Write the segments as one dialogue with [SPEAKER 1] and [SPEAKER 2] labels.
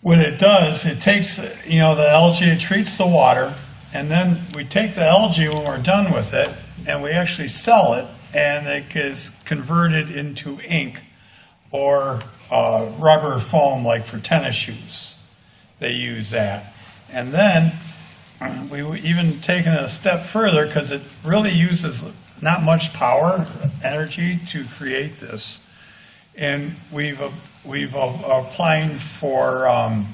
[SPEAKER 1] What it does, it takes, you know, the algae, it treats the water, and then we take the algae when we're done with it, and we actually sell it, and it is converted into ink or uh, rubber foam, like for tennis shoes. They use that. And then we were even taken it a step further because it really uses not much power, energy to create this. And we've, uh, we've uh, applying for, um,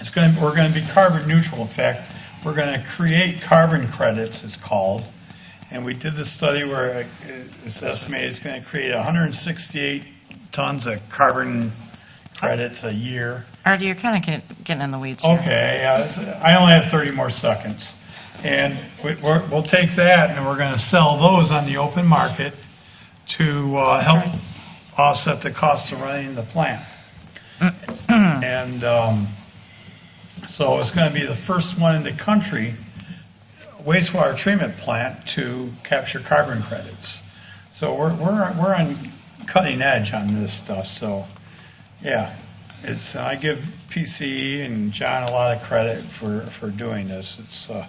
[SPEAKER 1] it's going, to we're going to be carbon neutral. In fact, we're going to create carbon credits, it's called. And we did this study where it's estimated it's going to create 168 tons of carbon credits a year.
[SPEAKER 2] Artie, you're kind of get- getting in the weeds here.
[SPEAKER 1] Okay, yeah, it's- I only have 30 more seconds. And we- we're- we'll take that, and we're going to sell those on the open market to uh, help offset the cost of running the plant. And um, so it's going to be the first one in the country wastewater treatment plant to capture carbon credits. So we're we're we're on cutting edge on this stuff, so, yeah. It's, I give PCE and John a lot of credit for, for doing this. It's, uh,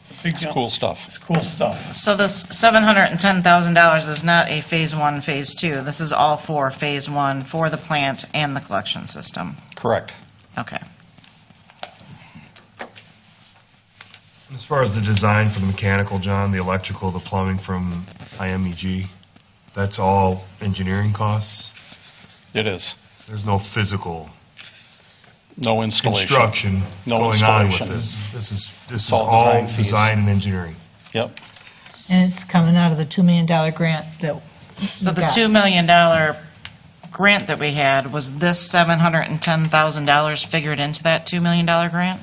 [SPEAKER 1] it's a big
[SPEAKER 3] It's
[SPEAKER 1] jump.
[SPEAKER 3] cool stuff.
[SPEAKER 1] It's cool stuff.
[SPEAKER 2] So this $710,000 is not a Phase 1, Phase 2. This is all for Phase 1, for the plant and the collection system.
[SPEAKER 3] Correct.
[SPEAKER 2] Okay.
[SPEAKER 4] As far as the design for the mechanical, John, the electrical, the plumbing from IMEG, that's all engineering costs.
[SPEAKER 3] It is.
[SPEAKER 4] There's no physical
[SPEAKER 3] No installation.
[SPEAKER 4] construction
[SPEAKER 3] No
[SPEAKER 4] going on with
[SPEAKER 3] installation.
[SPEAKER 4] this. This is, this is
[SPEAKER 3] all
[SPEAKER 4] all
[SPEAKER 3] design fees.
[SPEAKER 4] design and engineering.
[SPEAKER 3] Yep.
[SPEAKER 5] And it's coming out of the $2 million grant that.
[SPEAKER 2] So the $2 million grant that we had, was this $710,000 figured into that $2 million grant?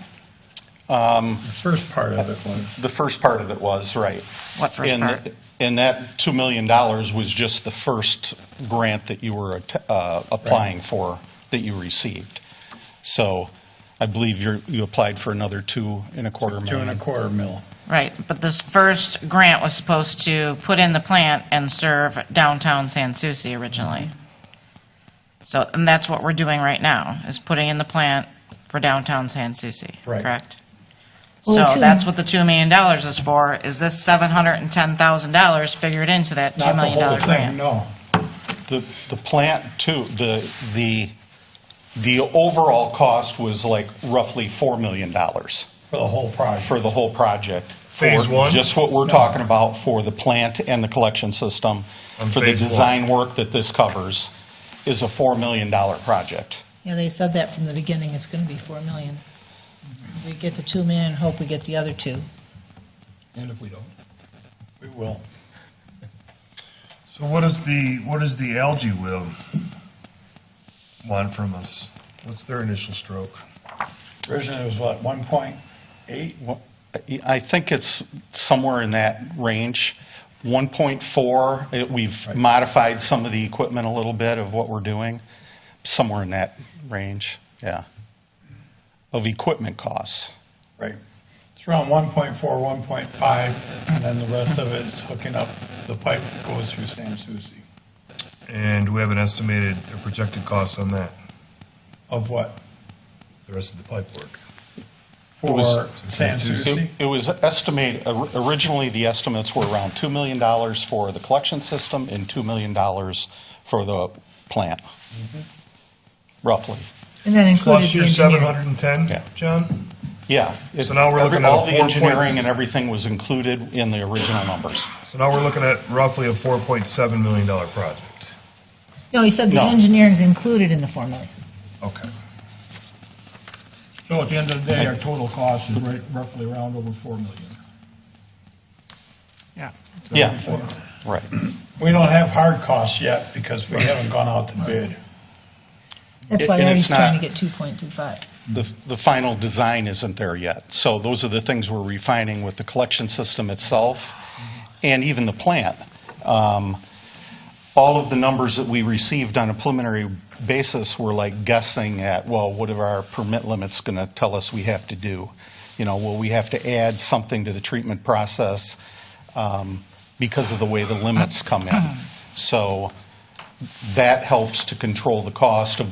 [SPEAKER 3] Um,
[SPEAKER 1] The first part of it was.
[SPEAKER 3] The first part of it was, right.
[SPEAKER 2] What first
[SPEAKER 3] And-
[SPEAKER 2] part?
[SPEAKER 3] And that $2 million was just the first grant that you were att- uh, applying for, that you received. So I believe you're, you applied for another two and a quarter
[SPEAKER 1] Two and a
[SPEAKER 3] million.
[SPEAKER 1] quarter mil.
[SPEAKER 2] Right, but this first grant was supposed to put in the plant and serve downtown San Souci originally. So, and that's what we're doing right now, is putting in the plant for downtown San Souci,
[SPEAKER 1] Right.
[SPEAKER 2] correct? So
[SPEAKER 5] Well, two-
[SPEAKER 2] that's what the $2 million is for, is this $710,000 figured into that $2
[SPEAKER 1] Not the
[SPEAKER 2] million
[SPEAKER 1] whole thing,
[SPEAKER 2] grant?
[SPEAKER 1] no.
[SPEAKER 3] The, the plant too, the, the, the overall cost was like roughly $4 million
[SPEAKER 1] For the whole project.
[SPEAKER 3] for the whole project. for
[SPEAKER 4] Phase one?
[SPEAKER 3] Just what we're talking about for the plant and the collection system,
[SPEAKER 4] On
[SPEAKER 3] for the
[SPEAKER 4] phase one.
[SPEAKER 3] design work that this covers, is a $4 million project.
[SPEAKER 5] Yeah, they said that from the beginning, it's going to be 4 million. We get the 2 million, hope we get the other two.
[SPEAKER 1] And if we don't? We will.
[SPEAKER 4] So what is the, what is the algae will want from us? What's their initial stroke?
[SPEAKER 1] Originally, it was what, 1.8?
[SPEAKER 3] Well, I- I think it's somewhere in that range. 1.4, it- we've modified some of the equipment a little bit of what we're doing, somewhere in that range, yeah, of equipment costs.
[SPEAKER 1] Right. It's around 1.4, 1.5, and then the rest of it is hooking up the pipe that goes through San Souci.
[SPEAKER 4] And do we have an estimated or projected cost on that,
[SPEAKER 1] Of what?
[SPEAKER 4] the rest of the pipe work?
[SPEAKER 3] It
[SPEAKER 1] For
[SPEAKER 3] was-
[SPEAKER 1] San Souci?
[SPEAKER 3] It was estimated, or- originally, the estimates were around $2 million for the collection system and $2 million for the plant,
[SPEAKER 4] Mm-hmm.
[SPEAKER 3] roughly.
[SPEAKER 5] And that included
[SPEAKER 4] Plus
[SPEAKER 5] the
[SPEAKER 4] your
[SPEAKER 5] engineering.
[SPEAKER 4] 710,
[SPEAKER 3] Yeah.
[SPEAKER 4] John?
[SPEAKER 3] Yeah. it-
[SPEAKER 4] So now we're
[SPEAKER 3] every-
[SPEAKER 4] looking at a
[SPEAKER 3] All the
[SPEAKER 4] four
[SPEAKER 3] engineering
[SPEAKER 4] points-
[SPEAKER 3] and everything was included in the original numbers.
[SPEAKER 4] So now we're looking at roughly a $4.7 million project.
[SPEAKER 5] No, he said the
[SPEAKER 3] No.
[SPEAKER 5] engineering's included in the 4 million.
[SPEAKER 4] Okay.
[SPEAKER 6] So at the end of the day, our total cost is right roughly around over four million.
[SPEAKER 5] Yeah.
[SPEAKER 3] Yeah, right.
[SPEAKER 1] We don't have hard costs yet because we haven't gone out to bid.
[SPEAKER 5] That's
[SPEAKER 3] And-
[SPEAKER 5] why
[SPEAKER 3] and
[SPEAKER 5] Artie's
[SPEAKER 3] it's not-
[SPEAKER 5] trying to get 2.25.
[SPEAKER 3] The, the final design isn't there yet. So those are the things we're refining with the collection system itself and even the plant. Um, All of the numbers that we received on a preliminary basis were like guessing at, well, what are our permit limits going to tell us we have to do? You know, will we have to add something to the treatment process um, because of the way the limits come in? So that helps to control the cost of